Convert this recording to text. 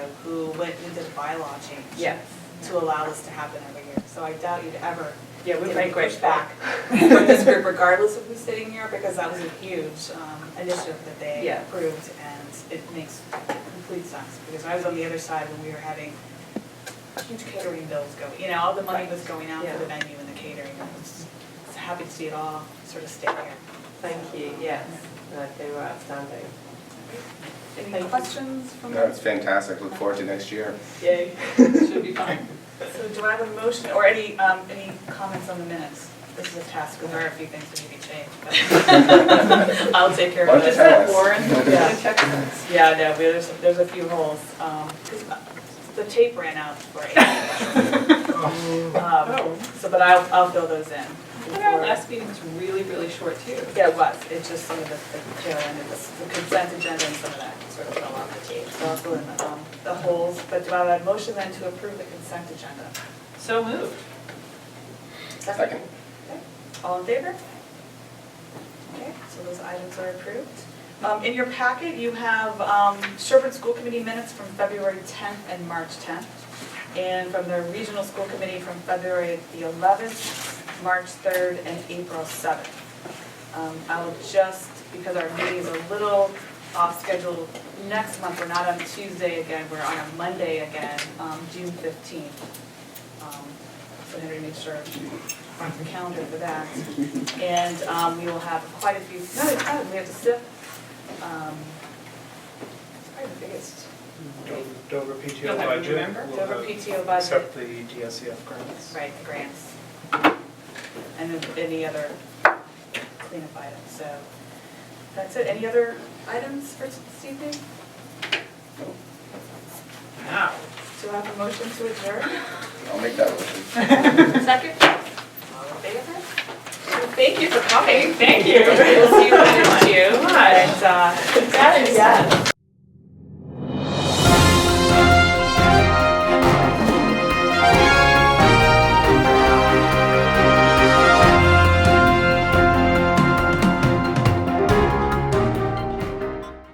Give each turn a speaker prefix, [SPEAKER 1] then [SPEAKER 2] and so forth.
[SPEAKER 1] school went and did a bylaw change.
[SPEAKER 2] Yeah,
[SPEAKER 1] To allow this to happen every year, so I doubt you'd ever
[SPEAKER 2] yeah, we
[SPEAKER 1] give
[SPEAKER 2] might
[SPEAKER 1] any
[SPEAKER 2] push
[SPEAKER 1] pushback
[SPEAKER 2] back.
[SPEAKER 1] for this group regardless of who's sitting here, because that was a huge um, initiative that they
[SPEAKER 2] Yeah.
[SPEAKER 1] approved, and it makes complete sense, because I was on the other side when we were having huge catering bills go, you know, all the money was going out for the venue and the catering, and I was just happy to see it all sort of stay here.
[SPEAKER 2] Thank you, yes, No, they were outstanding. Thank
[SPEAKER 1] Any
[SPEAKER 2] you.
[SPEAKER 1] questions from
[SPEAKER 3] No, it's fantastic, look forward to next year.
[SPEAKER 1] Yay, should be fun. So do I have a motion, or any, um, any comments on the minutes? This is a task, because there are a few things that need to be changed, but I'll take care of
[SPEAKER 3] Bunch
[SPEAKER 1] it.
[SPEAKER 3] of tasks.
[SPEAKER 1] Warren? Yeah,
[SPEAKER 2] Check this.
[SPEAKER 1] yeah, no, there's, there's a few holes, um, 'cause the tape ran out for April.
[SPEAKER 2] Oh,
[SPEAKER 1] Um, So, but I'll, I'll fill those in.
[SPEAKER 4] Our
[SPEAKER 1] before-
[SPEAKER 4] last meeting was really, really short too.
[SPEAKER 1] Yeah, it was, it's just some of the, the tail end of this, the consent agenda and some of that sort of fell off the tape, so I'll fill in the, um, the holes, but do I have a motion then to approve the consent agenda?
[SPEAKER 4] So moved.
[SPEAKER 3] Second.
[SPEAKER 1] All in favor? Okay, so those items are approved. Um, in your packet, you have, um, Sherburne School Committee minutes from February tenth and March tenth, and from the Regional School Committee from February the eleventh, March third, and April seventh. Um, I'll just, because our meeting is a little off schedule, next month, we're not on Tuesday again, we're on a Monday again, um, June fifteenth. Um, So Henry, make sure on the calendar for that. And um, we will have quite a few, no, it's not, we have to sip. um, It's probably the biggest,
[SPEAKER 5] Dover- Dover
[SPEAKER 4] You'll have-
[SPEAKER 5] PTO budget.
[SPEAKER 4] remember?
[SPEAKER 5] will
[SPEAKER 1] Dover
[SPEAKER 5] have-
[SPEAKER 1] PTO budget,
[SPEAKER 5] Accept the DSCF grants.
[SPEAKER 1] right, the grants. And then any other cleanup items, so that's it. Any other items for this evening?
[SPEAKER 4] Now.
[SPEAKER 1] Do I have a motion to adjourn?
[SPEAKER 3] I'll make that motion.
[SPEAKER 1] Second? All in favor? Thank you for coming.
[SPEAKER 4] Thank you. We'll see you next year.
[SPEAKER 1] And, uh,
[SPEAKER 4] That is-
[SPEAKER 1] yes.